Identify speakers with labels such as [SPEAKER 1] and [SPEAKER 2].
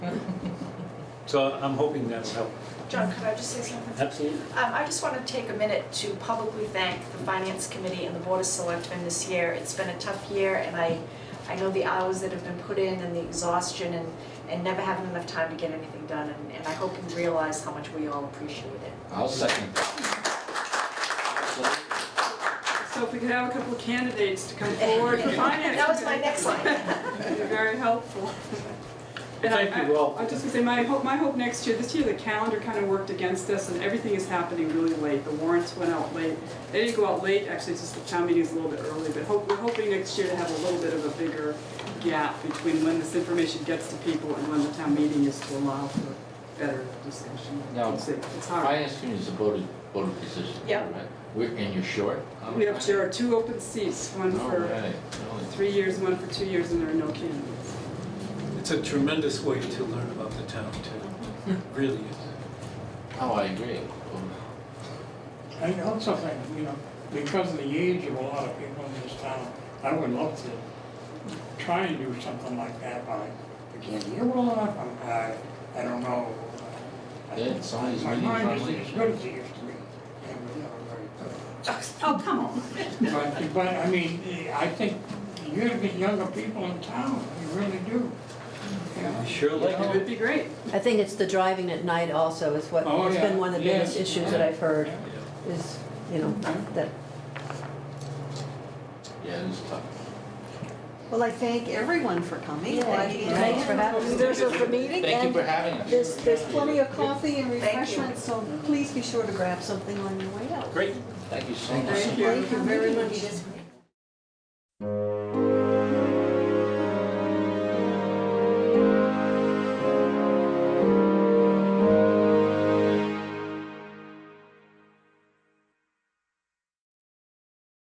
[SPEAKER 1] So I'm hoping that'll help.
[SPEAKER 2] John, could I just say something?
[SPEAKER 1] Absolutely.
[SPEAKER 2] Um, I just want to take a minute to publicly thank the Finance Committee and the Board of Selectmen this year. It's been a tough year, and I, I know the hours that have been put in and the exhaustion and, and never having enough time to get anything done, and, and I hope you realize how much we all appreciate it.
[SPEAKER 3] I'll second.
[SPEAKER 4] So if we could have a couple of candidates to come forward for finance.
[SPEAKER 2] That was my next line.
[SPEAKER 4] That'd be very helpful. And I-
[SPEAKER 1] Thank you all.
[SPEAKER 4] I I just gonna say, my hope, my hope next year, this year the calendar kind of worked against us and everything is happening really late. The warrants went out late. They didn't go out late, actually, it's just the town meeting's a little bit early, but hope, we're hoping next year to have a little bit of a bigger gap between when this information gets to people and when the town meeting is to allow for better discussion.
[SPEAKER 3] No.
[SPEAKER 4] It's- It's hard.
[SPEAKER 3] Finance committee is a voted, voted position.
[SPEAKER 2] Yeah.
[SPEAKER 3] right? We're- And you're short?
[SPEAKER 4] We have, there are two open seats, one
[SPEAKER 3] All
[SPEAKER 4] for
[SPEAKER 3] right.
[SPEAKER 4] three years, one for two years, and there are no candidates.
[SPEAKER 1] It's a tremendous way to learn about the town too. Really is.
[SPEAKER 3] Oh, I agree. Oh,
[SPEAKER 5] I also think, you know, because of the age of a lot of people in this town, I would love to try and do something like that, but I can't hear well enough, I'm, I, I don't know.
[SPEAKER 3] Yeah, some of these
[SPEAKER 5] My
[SPEAKER 3] meetings
[SPEAKER 5] mind
[SPEAKER 3] are
[SPEAKER 5] isn't
[SPEAKER 3] late.
[SPEAKER 5] as good as it used to be, and we're never very good.
[SPEAKER 4] Oh, come on.
[SPEAKER 5] But, but, I mean, I think you get younger people in town, you really do, you know?
[SPEAKER 1] Sure like
[SPEAKER 4] It would be great.
[SPEAKER 6] I think it's the driving at night also is what,
[SPEAKER 5] Oh,
[SPEAKER 6] has
[SPEAKER 5] yeah.
[SPEAKER 6] been one of the biggest
[SPEAKER 5] Yes.
[SPEAKER 6] issues that I've heard,
[SPEAKER 5] Yeah.
[SPEAKER 6] is, you know, that.
[SPEAKER 3] Yeah, it is tough.
[SPEAKER 7] Well, I thank everyone for coming.
[SPEAKER 6] Thanks for having us.
[SPEAKER 7] There's a meeting
[SPEAKER 3] Thank you
[SPEAKER 7] and
[SPEAKER 3] for having us.
[SPEAKER 7] there's, there's plenty of coffee and
[SPEAKER 2] Thank you.
[SPEAKER 7] refreshments, so please be sure to grab something on your way out.
[SPEAKER 1] Great.
[SPEAKER 3] Thank you so much.
[SPEAKER 4] Thank you.
[SPEAKER 7] very much.